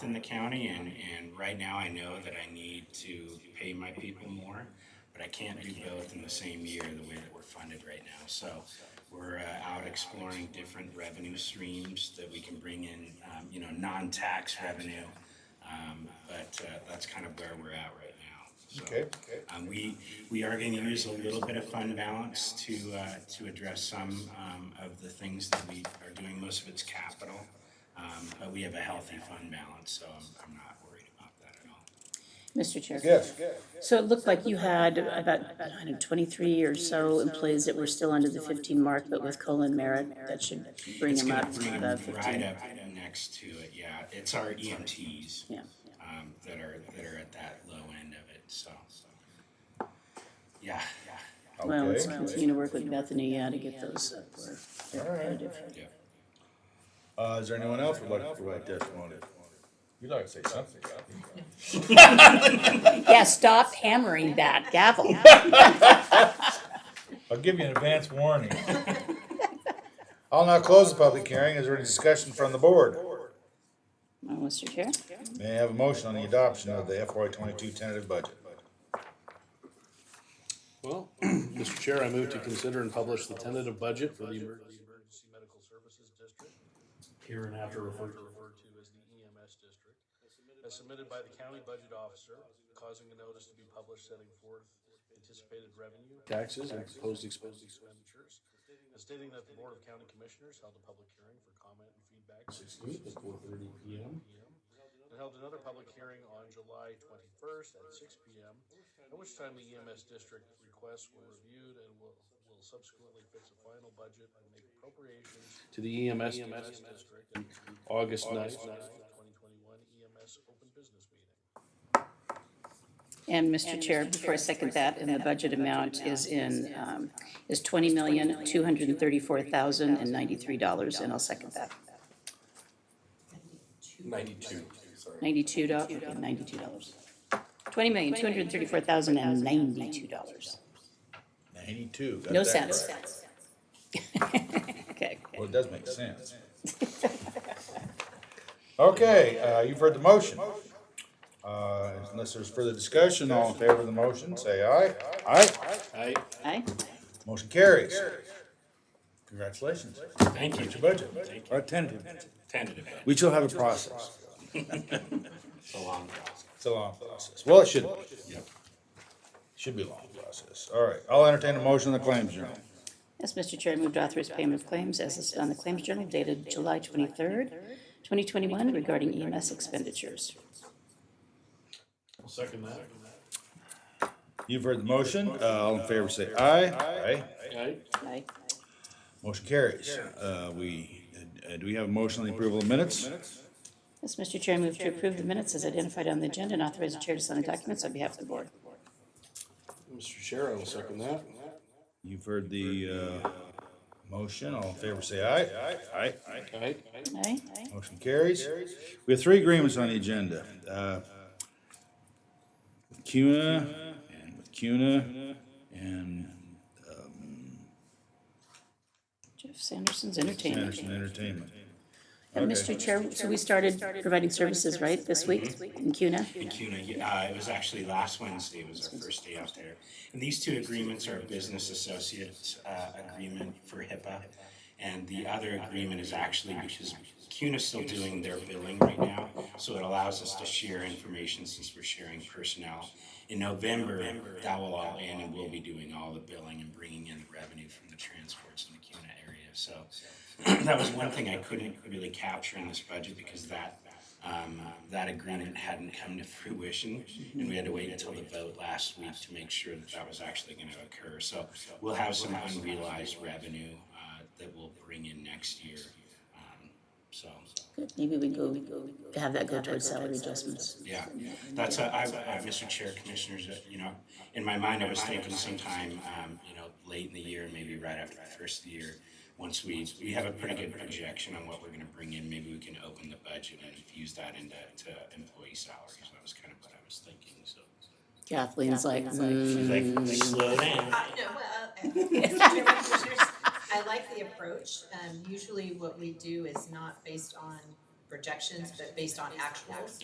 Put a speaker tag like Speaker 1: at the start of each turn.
Speaker 1: in the county and, and right now I know that I need to pay my people more, but I can't do both in the same year, the way that we're funded right now. So we're uh, out exploring different revenue streams that we can bring in, um, you know, non-tax revenue. Um, but, uh, that's kind of where we're at right now, so.
Speaker 2: Okay, okay.
Speaker 1: Um, we, we are gonna use a little bit of fund balance to, uh, to address some, um, of the things that we are doing, most of it's capital. Um, but we have a healthy fund balance, so I'm, I'm not worried about that at all.
Speaker 3: Mr. Chair.
Speaker 2: Yes,
Speaker 3: So it looked like you had about, I don't know, twenty-three or so employees that were still under the fifteen mark, but with COLA and merit, that should bring
Speaker 1: It's
Speaker 3: them
Speaker 1: gonna
Speaker 3: up to
Speaker 1: bring
Speaker 3: the
Speaker 1: them right
Speaker 3: fifteen.
Speaker 1: up next to it, yeah, it's our EMTs.
Speaker 3: Yeah.
Speaker 1: Um, that are, that are at that low end of it, so. Yeah, yeah,
Speaker 3: Well, let's
Speaker 2: Okay.
Speaker 3: continue to work with Bethany, yeah, to get those up where they're
Speaker 2: All right.
Speaker 3: competitive.
Speaker 1: yeah.
Speaker 2: Uh, is there anyone else who'd like to provide testimony? You'd like to say something,
Speaker 4: Yeah, stop hammering that gavel.
Speaker 5: I'll give you an advance warning.
Speaker 2: I'll now close the public hearing. Is there any discussion from the board?
Speaker 3: Well, Mr. Chair,
Speaker 2: May I have a motion on the adoption of the FY twenty-two tentative budget?
Speaker 6: Well, Mr. Chair, I move to consider and publish the tentative budget for the emergency medical services district. Here and after referred to. as the EMS district, as submitted by the county budget officer, causing a notice to be published setting forth anticipated revenue. Taxes and proposed expenditures, and stating that the Board of County Commissioners held a public hearing for comment and feedback. Sixteenth at four thirty P M. And held another public hearing on July twenty-first at six P M. At which time the EMS district requests were reviewed and will, will subsequently fix a final budget and make appropriations. To the EMS district. August ninth. Twenty twenty-one EMS open business meeting.
Speaker 3: and Mr. Chair, before I second that, and the budget amount is in, um, is twenty million, two hundred and thirty-four thousand and ninety-three dollars, and I'll second that.
Speaker 6: Ninety-two, sorry.
Speaker 3: Ninety-two dollars, ninety-two dollars. Twenty million, two hundred and thirty-four thousand and ninety-two dollars.
Speaker 2: Ninety-two. got
Speaker 3: No
Speaker 2: that
Speaker 3: sense.
Speaker 2: right.
Speaker 3: Okay.
Speaker 2: Well, it does make sense. Okay, uh, you've heard the motion. Uh, unless there's further discussion, all in favor of the motion, say aye. Aye.
Speaker 6: I,
Speaker 3: Aye.
Speaker 2: Motion carries. Congratulations.
Speaker 1: Thank you.
Speaker 2: Budget, or tentative.
Speaker 1: Tentative, but
Speaker 2: We still have a process.
Speaker 1: it's a long process.
Speaker 2: It's a long process. Well, it should be. Should be a long process. All right, I'll entertain a motion on the claims journal.
Speaker 3: Yes, Mr. Chair, I move to authorize payment of claims as listed on the Claims Journal dated July twenty-third, twenty twenty-one regarding EMS expenditures.
Speaker 6: will second that.
Speaker 2: You've heard the motion. Uh, all in favor, say aye. Aye.
Speaker 6: I,
Speaker 3: Aye.
Speaker 2: Motion carries. Uh, we, uh, do we have a motion on the approval of minutes?
Speaker 3: Yes, Mr. Chair, I move to approve the minutes as identified on the agenda and authorize the chair to sign the documents on behalf of the board.
Speaker 6: Mr. Chair, I will second that.
Speaker 2: You've heard the, uh, motion. All in favor, say aye. Aye. Aye.
Speaker 6: I,
Speaker 3: Aye.
Speaker 2: Motion carries. We have three agreements on the agenda. uh, With CUNA and with CUNA and
Speaker 3: Jeff Sanderson's entertainment.
Speaker 2: Anderson Entertainment.
Speaker 3: And Mr. Chair, so we started providing services, right, this week in CUNA?
Speaker 1: CUNA, yeah, uh, it was actually last Wednesday was our first day out there. And these two agreements are a business associate, uh, agreement for HIPAA. And the other agreement is actually because CUNA's still doing their billing right now, so it allows us to share information since we're sharing personnel. In November, that will all end and we'll be doing all the billing and bringing in the revenue from the transports in the CUNA area, so. That was one thing I couldn't really capture in this budget because that um, that agreement hadn't come to fruition, and we had to wait until the vote last week to make sure that that was actually gonna occur. So we'll have some unrealized revenue, uh, that we'll bring in next year. Um, So,
Speaker 3: Good, maybe we go, have that go towards salary adjustments.
Speaker 1: yeah, that's, a- I, I, Mr. Chair, Commissioners, uh, you know, in my mind, I was thinking sometime, um, you know, late in the year, maybe right after the first of the year, once we, we have a pretty good projection on what we're gonna bring in, maybe we can open the budget and use that into, to employee salaries. That was kind of what I was thinking, so.
Speaker 3: Kathleen's like, mm,
Speaker 1: Like, slow down.
Speaker 7: I know, well, uh, Mr. Chairman, Commissioners, I like the approach. Um, usually what we do is not based on projections, but based on actuals.